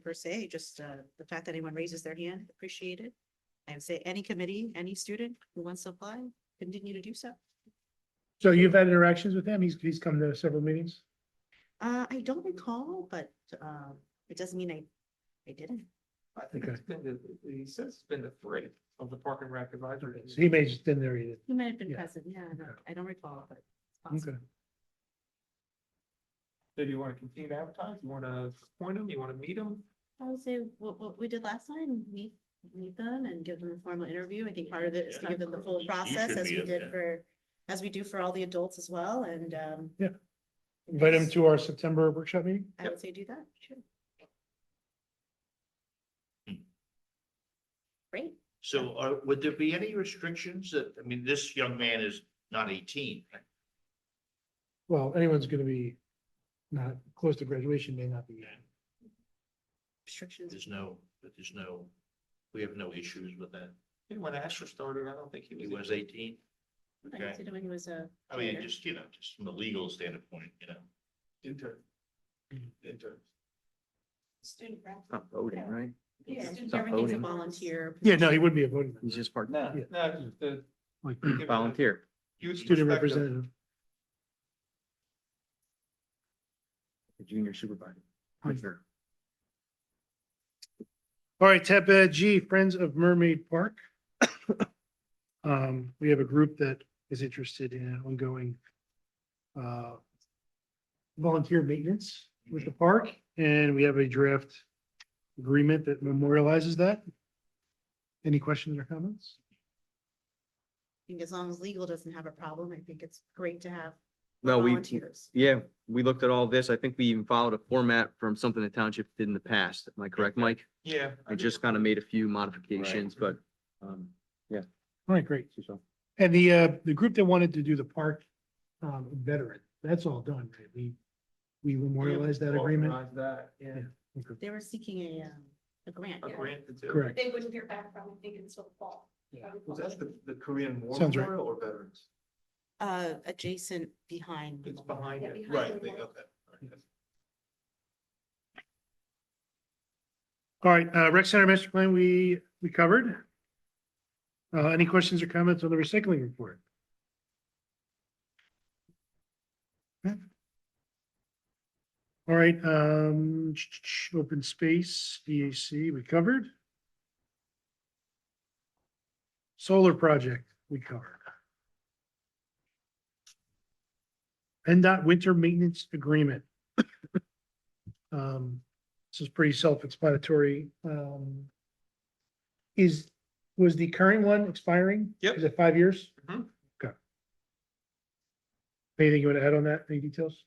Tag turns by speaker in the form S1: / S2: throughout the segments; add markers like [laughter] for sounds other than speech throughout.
S1: per se, just uh, the fact that anyone raises their hand, appreciate it. And say any committee, any student who wants to apply, continue to do so.
S2: So you've had interactions with him? He's, he's come to several meetings?
S1: Uh, I don't recall, but um, it doesn't mean I, I didn't.
S3: I think
S2: Okay.
S3: it's been, the- he says it's been the three of the Park and Rec Advisory.
S2: So he may just been there either.
S1: You might have been
S2: Yeah.
S1: present, yeah, I don't- I don't recall, but. it's possible.
S2: Okay.
S3: So do you want to continue to advertise? You want to appoint him? You want to meet him?
S1: I would say what, what we did last time, meet, meet them and give them a formal interview. I think part of it is to give them the full process
S4: should
S1: as
S4: be
S1: we
S4: up
S1: did
S4: there.
S1: for, as we do for all the adults as well, and um.
S2: Yeah. Invite him to our September workshop meeting?
S1: I would say do that, sure.
S4: Hmm.
S1: Great,
S4: So are, would there be any restrictions that, I mean, this young man is not eighteen. right?
S2: Well, anyone's gonna be not close to graduation may not be.
S1: restrictions.
S4: There's no, but there's no, we have no issues with that.
S3: Yeah, When Asher started, I don't think he
S4: He
S3: was.
S4: was eighteen.
S1: I
S4: Okay.
S1: consider when he was a.
S4: I mean,
S1: player.
S4: Oh, just, you know, just from a legal standpoint, you know.
S3: Intern. Intern.
S1: Student rep.
S5: Not voting, right?
S1: Yeah, student-
S5: Not
S1: everything's a
S5: voting.
S1: volunteer.
S2: Yeah, no, he would be a voting, member,
S5: He's just part,
S3: No,
S2: Yeah.
S3: no, just
S5: [clears throat]
S3: the
S2: like
S3: give it a
S5: volunteer.
S3: youth
S2: student
S3: perspective.
S2: representative.
S5: the Junior supervisor.
S2: Hmm. All right, tab uh, G, Friends of Mermaid Park. [coughs] Um, we have a group that is interested in ongoing uh, volunteer maintenance with
S5: Mm-hmm.
S2: the park, and we have a draft agreement that memorializes that. Any questions or comments?
S1: I think as long as legal doesn't have a problem, I think it's great to have
S5: No, we,
S1: volunteers.
S5: yeah, we looked at all this. I think we even followed a format from something the township did in the past. Am I correct, Mike?
S3: Yeah.
S5: I just kind of made a few modifications, but, um,
S2: All right, great.
S5: so-
S2: And the, uh, the group that wanted to do the park, um, veteran, that's all done, right? We, we memorialized that agreement.
S3: Authorize That, yeah.
S2: Okay,
S1: They were seeking a, um, a grant.
S3: A
S1: yeah.
S3: grant to do.
S2: Correct.
S6: they wouldn't hear back from, I think, until fall.
S3: Was that the, the Korean War
S2: Sounds right.
S3: Memorial or Veterans?
S1: Uh, adjacent behind.
S3: It's behind
S6: Yeah,
S3: it.
S6: behind Right, the they- wall.
S3: okay.
S2: All right, uh, rec center master plan, we, we covered. Uh, any questions or comments on the recycling report? Okay. All right, um, open space, EAC, we covered. Solar project, we covered. PennDOT winter maintenance agreement. [coughs] Um, this is pretty self-explanatory. Um, is, was the current one expiring?
S3: Yep.
S2: Is it five years?
S3: Mhm.
S2: Okay. Anything you want to add on that? Any details?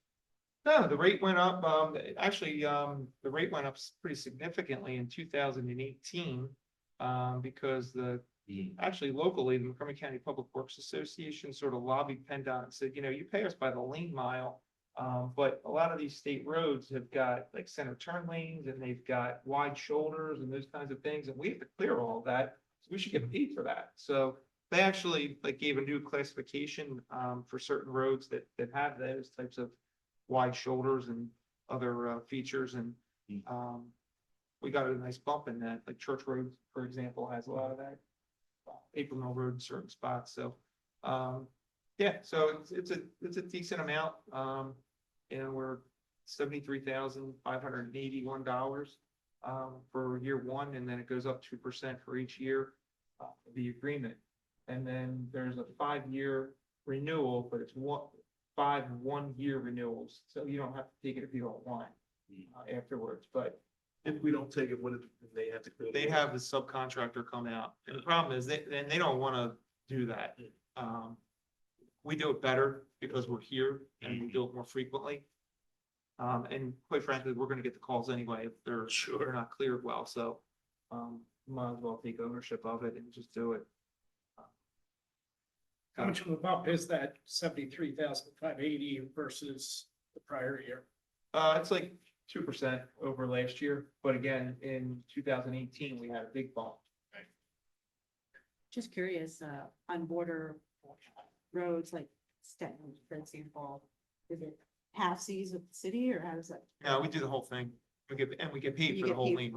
S3: No, the rate went up, um, actually, um, the rate went up s- pretty significantly in two thousand and eighteen. Um, because the, actually locally, the Montgomery County Public Works Association sort of lobbied PennDOT and said, you know, you pay us by the lane mile. Um, but a lot of these state roads have got like center turn lanes and they've got wide shoulders and those kinds of things, and we have to clear all of that. So we should get paid for that. So they actually like gave a new classification, um, for certain roads that, that have those types of wide shoulders and other uh, features and
S4: Hmm.
S3: um, we got a nice bump in that, like Church Road, for example, has a lot of that. uh, April Mill Road, in certain spots, so um, yeah, so it's, it's a, it's a decent amount. Um, and we're seventy-three thousand five hundred and eighty-one dollars um, for year one, and then it goes up two percent for each year uh, of the agreement. And then there's a five-year renewal, but it's one, five one-year renewals, so you don't have to take it if you don't want it, uh, afterwards, but. If we don't take it, what if they have to? They'd have the subcontractor come out, and the problem is, they, and they don't wanna do that. Um, we do it better because we're here and we do it more frequently. Um, and quite frankly, we're gonna get the calls anyway if they're, if they're not cleared well, so, um, might as well take ownership of it and just do it.
S7: How much of a bump is that seventy-three thousand five eighty versus the prior year?
S3: Uh, it's like two percent over last year, but again, in two thousand eighteen, we had a big bump.
S1: Just curious, uh, on border roads like Staten, for example, is it half seas of the city or how does that?
S3: No, we do the whole thing.
S1: We get, and we get paid for
S3: You
S1: the
S3: get
S1: whole
S3: paid
S1: lien.